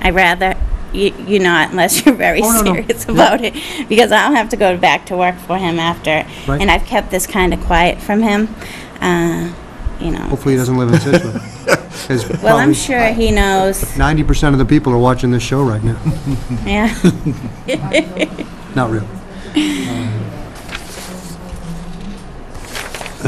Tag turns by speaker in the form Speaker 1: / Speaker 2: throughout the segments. Speaker 1: I rather, you, you not unless you're very
Speaker 2: Oh, no, no.
Speaker 1: serious about it, because I'll have to go back to work for him after.
Speaker 2: Right.
Speaker 1: And I've kept this kind of quiet from him, uh, you know.
Speaker 2: Hopefully, he doesn't live in Situate. 'Cause
Speaker 1: Well, I'm
Speaker 2: probably
Speaker 1: sure he knows,
Speaker 2: 90% of the people are watching this show right now.
Speaker 1: yeah.
Speaker 2: Not real.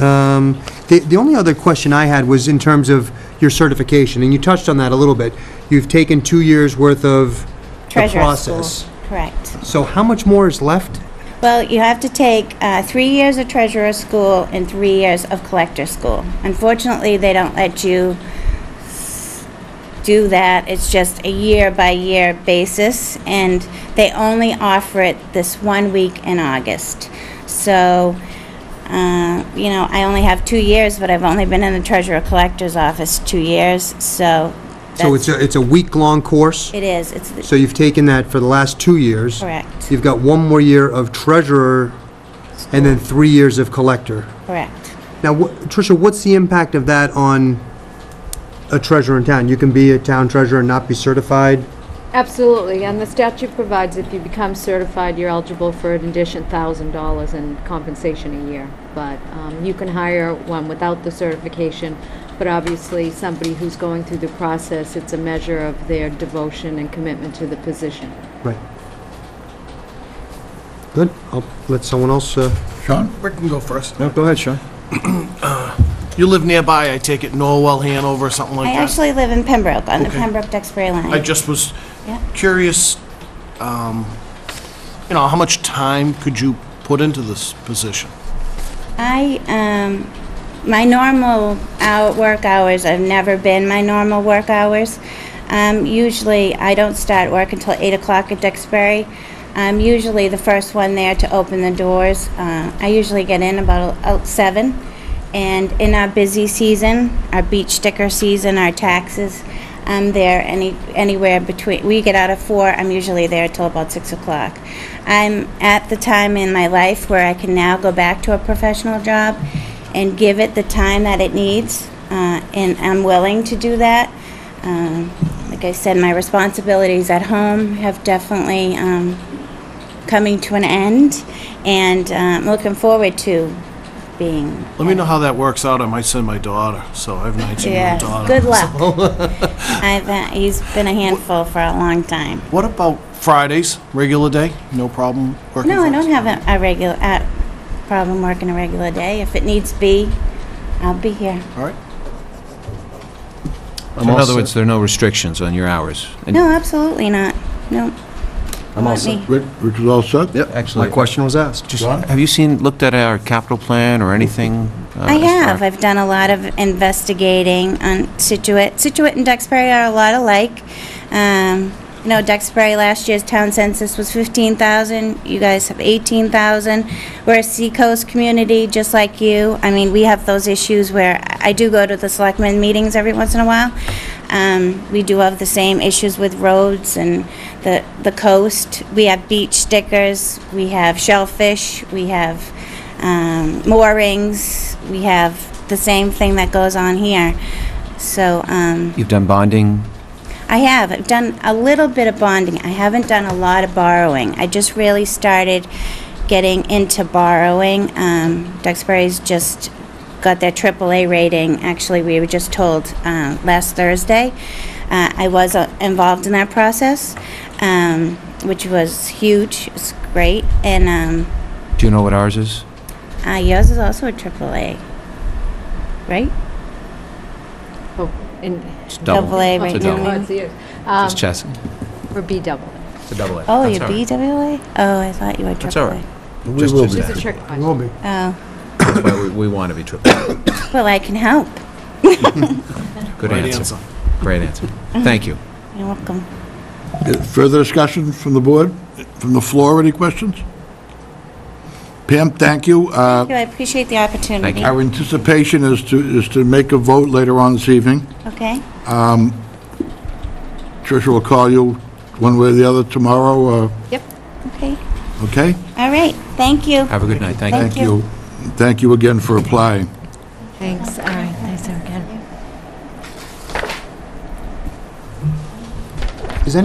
Speaker 2: Um, The the only other question I had was in terms of your certification, and you touched on that a little bit. You've taken two years' worth of the
Speaker 1: Treasurer school,
Speaker 2: process.
Speaker 1: correct.
Speaker 2: So how much more is left?
Speaker 1: Well, you have to take uh, three years of treasurer school and three years of collector school. Unfortunately, they don't let you do that. It's just a year by year basis, and they only offer it this one week in August. So, uh, you know, I only have two years, but I've only been in the treasurer collector's office two years, so.
Speaker 2: So it's
Speaker 1: that's-
Speaker 2: a it's a week-long course?
Speaker 1: It is. It's the-
Speaker 2: So you've taken that for the last two years?
Speaker 1: correct.
Speaker 2: You've got one more year of treasurer and then three years of collector.
Speaker 1: Correct.
Speaker 2: Now, wh- Tricia, what's the impact of that on a treasurer in town? You can be a town treasurer and not be certified?
Speaker 3: Absolutely, and the statute provides if you become certified, you're eligible for an addition thousand dollars in compensation a year. But um, you can hire one without the certification, but obviously, somebody who's going through the process, it's a measure of their devotion and commitment to the position.
Speaker 2: Right. Good. I'll let someone else, uh,
Speaker 4: Sean?
Speaker 5: Rick can go first. Uh,
Speaker 4: No, go ahead, Sean.
Speaker 5: You live nearby, I take it, Norwell, Hanover, something
Speaker 1: I
Speaker 5: like that?
Speaker 1: actually live in Pembroke, on the
Speaker 5: Okay.
Speaker 1: Pembroke-Duxbury line.
Speaker 5: I just was
Speaker 1: Yeah.
Speaker 5: curious, um, you know, how much time could you put into this position?
Speaker 1: I, um, my normal hour, work hours have never been my normal work hours. Um, usually, I don't start work until 8 o'clock at Duxbury. I'm usually the first one there to open the doors. Uh, I usually get in about uh, 7. And in our busy season, our beach sticker season, our taxes, I'm there any, anywhere between, we get out of four, I'm usually there till about six o'clock. I'm at the time in my life where I can now go back to a professional job and give it the time that it needs, uh, and I'm willing to do that. Um, like I said, my responsibilities at home have definitely, um, coming to an end, and, uh, I'm looking forward to being
Speaker 5: Let me know how that works out, I might send my daughter, so I have an 19-year-old
Speaker 1: yeah,
Speaker 5: daughter.
Speaker 1: good luck. I've, uh, he's been a handful for a long time.
Speaker 5: What about Fridays, regular day? No problem working
Speaker 1: No, I
Speaker 5: Fridays?
Speaker 1: don't have a, a regular, uh problem working a regular day. If it needs be, I'll be here.
Speaker 5: All right.
Speaker 6: So In other words, there are no restrictions on your hours. And
Speaker 1: No, absolutely not. No.
Speaker 6: I'm all
Speaker 1: Not
Speaker 6: set.
Speaker 1: me.
Speaker 4: Rich Rich is all set?
Speaker 6: Yep.
Speaker 2: my
Speaker 6: Actually,
Speaker 2: question was asked.
Speaker 6: just,
Speaker 4: John?
Speaker 6: have you seen, looked at our capital plan or anything? uh,
Speaker 1: I
Speaker 6: as far-
Speaker 1: have. I've done a lot of investigating on Situate. Situate and Duxbury are a lot alike. Um, you know, Duxbury last year's town census was 15,000. You guys have 18,000. We're a seacoast community, just like you. I mean, we have those issues where I I do go to the selectmen meetings every once in a while. Um, we do have the same issues with roads and the, the coast. We have beach stickers. We have shellfish. We have um, moorings. We have the same thing that goes on here. So um,
Speaker 6: You've done bonding?
Speaker 1: I have. I've done a little bit of bonding. I haven't done a lot of borrowing. I just really started getting into borrowing. Um, Duxbury's just got their AAA rating. Actually, we were just told uh, last Thursday. Uh, I was uh, involved in that process, um, which was huge. It's great. And um,
Speaker 6: Do you know what ours is?
Speaker 1: uh, yours is also a AAA, right?
Speaker 3: Oh, and.
Speaker 6: It's
Speaker 1: Double A right
Speaker 6: It's a
Speaker 1: now.
Speaker 6: double.
Speaker 3: Oh, it's the- um,
Speaker 6: It's chess.
Speaker 3: Or B double.
Speaker 6: It's a double A.
Speaker 1: Oh,
Speaker 6: That's
Speaker 1: you're
Speaker 6: all right.
Speaker 1: BWA? Oh, I thought you were AAA.
Speaker 6: That's all right.
Speaker 4: We will be.
Speaker 3: It's a trick
Speaker 2: It
Speaker 3: question.
Speaker 2: will be.
Speaker 1: Oh,
Speaker 6: That's why we- we want to be triple. A.
Speaker 1: well, I can help.
Speaker 6: Good
Speaker 5: Right
Speaker 6: answer. Great answer. Thank you.
Speaker 1: You're welcome.
Speaker 4: Uh, Further discussion from the board, from the floor, any questions? Pam, thank you. Uh,
Speaker 1: Thank you, I appreciate the opportunity.
Speaker 4: Our anticipation is to, is to make a vote later on this evening.
Speaker 1: Okay,
Speaker 4: Tricia will call you one way or the other tomorrow, uh,
Speaker 3: Yep.
Speaker 1: okay.
Speaker 4: okay?
Speaker 1: All right, thank you.
Speaker 6: Have a good night. Thank you.
Speaker 1: Thank you.
Speaker 4: Thank you again for applying.
Speaker 3: Thanks, all right.